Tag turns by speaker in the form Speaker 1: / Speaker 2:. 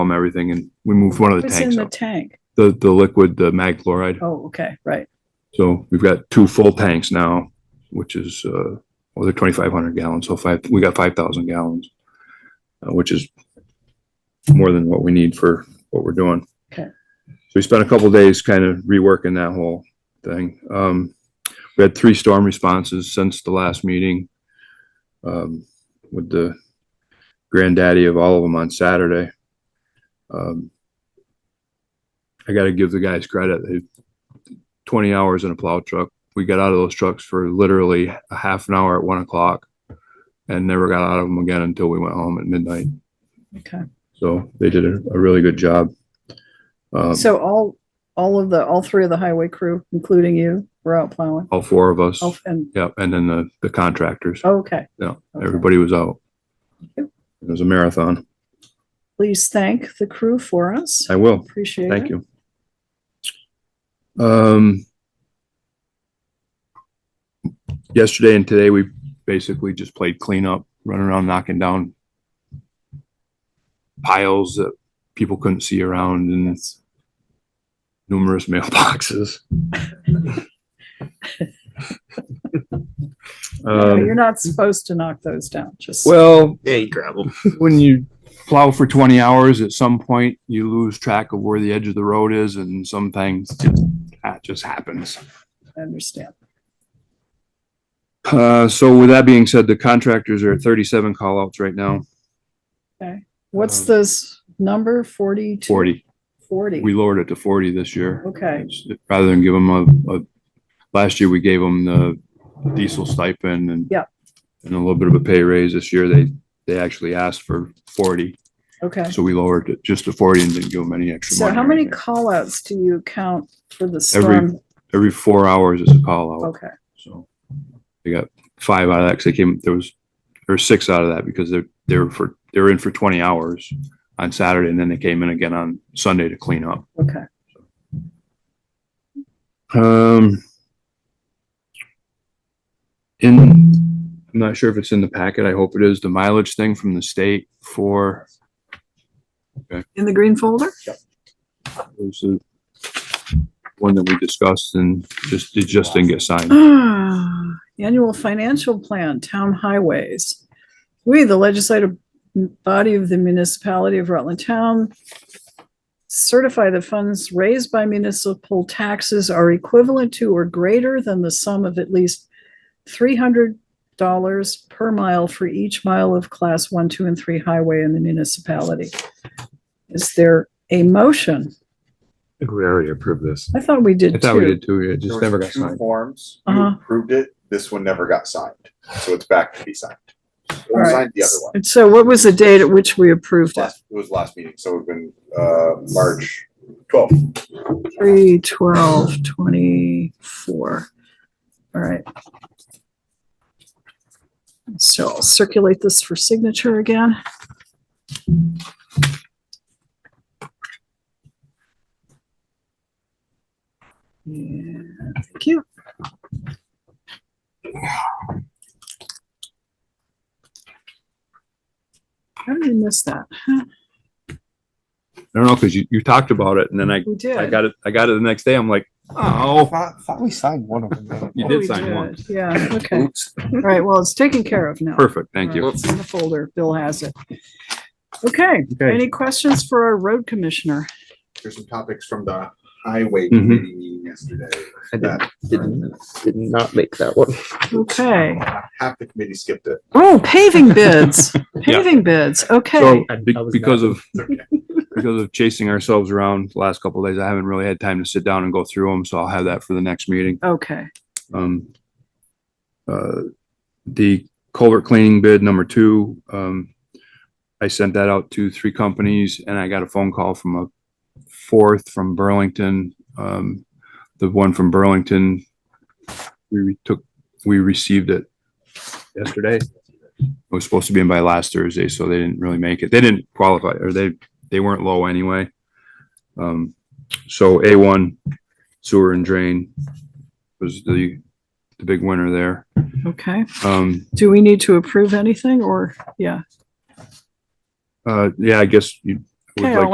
Speaker 1: um, everything and we moved one of the
Speaker 2: What's in
Speaker 1: tanks
Speaker 2: the
Speaker 1: out.
Speaker 2: tank?
Speaker 1: The, the liquid, the mag chloride.
Speaker 2: Oh, okay, right.
Speaker 1: So we've got two full tanks now, which is, uh, well, they're twenty-five hundred gallons, so five, we got five thousand gallons, uh, which is more than what we need for what we're doing.
Speaker 2: Okay.
Speaker 1: So we spent a couple days kind of reworking that whole thing. Um, we had three storm responses since the last meeting. Um, with the granddaddy of all of them on Saturday. Um, I gotta give the guys credit. They 20 hours in a plow truck. We got out of those trucks for literally a half an hour at one o'clock and never got out of them again until we went home at midnight.
Speaker 2: Okay.
Speaker 1: So they did a, a really good job. Um,
Speaker 2: So all, all of the, all three of the highway crew, including you, were out plowing.
Speaker 1: all four of us.
Speaker 2: Oh, and,
Speaker 1: Yep. And then the, the contractors.
Speaker 2: okay.
Speaker 1: Yeah.
Speaker 2: Okay.
Speaker 1: Everybody was out. It
Speaker 2: Yep.
Speaker 1: was a marathon.
Speaker 2: Please thank the crew for us.
Speaker 1: I will.
Speaker 2: Appreciate it.
Speaker 1: Thank you. Um, yesterday and today, we basically just played cleanup, running around knocking down piles that people couldn't see around and numerous mailboxes.
Speaker 2: No, You're
Speaker 1: Um,
Speaker 2: not supposed to knock those down, just.
Speaker 1: well,
Speaker 3: Yeah, you grab them.
Speaker 1: when you plow for 20 hours, at some point you lose track of where the edge of the road is and some things just, that just happens.
Speaker 2: I understand.
Speaker 1: Uh, so with that being said, the contractors are at 37 call outs right now,
Speaker 2: What's
Speaker 1: Um,
Speaker 2: this number? Forty-two?
Speaker 1: 40.
Speaker 2: Forty.
Speaker 1: We lowered it to 40 this year.
Speaker 2: Okay,
Speaker 1: It's- Rather than give them a, a, last year we gave them the diesel stipend and
Speaker 2: Yep.
Speaker 1: and a little bit of a pay raise. This year they, they actually asked for 40.
Speaker 2: okay.
Speaker 1: So we lowered it just to 40 and didn't give them any extra
Speaker 2: So
Speaker 1: money.
Speaker 2: how
Speaker 1: or
Speaker 2: many
Speaker 1: anything.
Speaker 2: callouts do you count for the
Speaker 1: Every-
Speaker 2: storm?
Speaker 1: Every four hours is a call out.
Speaker 2: Okay,
Speaker 1: So they got five out of that, 'cause they came, there was, there were six out of that because they're, they were for, they were in for twenty hours on Saturday and then they came in again on Sunday to clean up.
Speaker 2: okay.
Speaker 1: Um. In, I'm not sure if it's in the packet. I hope it is. The mileage thing from the state for,
Speaker 2: In the green folder?
Speaker 1: was the one that we discussed and just, it just didn't get signed.
Speaker 2: Ah, Annual financial plan, town highways. We, the legislative body of the municipality of Rutland Town, certify the funds raised by municipal taxes are equivalent to or greater than the sum of at least three hundred dollars per mile for each mile of class one, two, and three highway in the municipality. Is there a motion?
Speaker 3: I think we already approved this.
Speaker 2: I thought we
Speaker 1: I
Speaker 2: did
Speaker 1: thought we
Speaker 2: too.
Speaker 1: did too. It
Speaker 4: There
Speaker 1: just
Speaker 4: was
Speaker 1: never got
Speaker 4: two
Speaker 1: signed.
Speaker 4: Forms, you
Speaker 2: Uh-huh.
Speaker 4: approved it, this one never got signed, so it's back to be signed.
Speaker 2: All
Speaker 4: We
Speaker 2: right.
Speaker 4: signed the other one,
Speaker 2: And so what was the date at which we approved it?
Speaker 4: last, it was last meeting, so we've been, uh, March twelfth.
Speaker 2: Three, twelve, twenty-four. All right. So I'll circulate this for signature again. Yeah, thank you. How did I miss that? Huh,
Speaker 1: I don't know, cause you, you talked about it and then I
Speaker 2: We did.
Speaker 1: I got it. I got it the next day. I'm like, oh,
Speaker 5: Thought, thought we signed one of them.
Speaker 1: you
Speaker 2: Oh,
Speaker 1: did
Speaker 2: we
Speaker 1: sign one.
Speaker 2: did. Yeah, okay. All right, well, it's taken care of now.
Speaker 1: Perfect. Thank
Speaker 2: All
Speaker 1: you.
Speaker 2: right, It's in the folder. Bill has it. Okay,
Speaker 1: Okay.
Speaker 2: any questions for our road commissioner?
Speaker 4: There's some topics from the highway
Speaker 1: Mhm.
Speaker 4: committee meeting yesterday.
Speaker 5: I did-
Speaker 4: that are in the minutes.
Speaker 5: Did not make that one.
Speaker 2: Okay.
Speaker 4: Uh, Half the committee skipped it.
Speaker 2: Oh, paving bids, paving bids. Okay,
Speaker 1: So be- because of, because of chasing ourselves around the last couple of days, I haven't really had time to sit down and go through them. So I'll have that for the next meeting.
Speaker 2: okay.
Speaker 1: Um, uh, the culvert cleaning bid number two, um, I sent that out to three companies and I got a phone call from a fourth from Burlington. Um, the one from Burlington, we re- took, we received it yesterday. It was supposed to be in by last Thursday, so they didn't really make it. They didn't qualify or they, they weren't low anyway. Um, so A1 sewer and drain was the the big winner there.
Speaker 2: Okay.
Speaker 1: Um,
Speaker 2: Do we need to approve anything or, yeah?
Speaker 1: uh, yeah, I guess you would
Speaker 2: Okay,
Speaker 1: like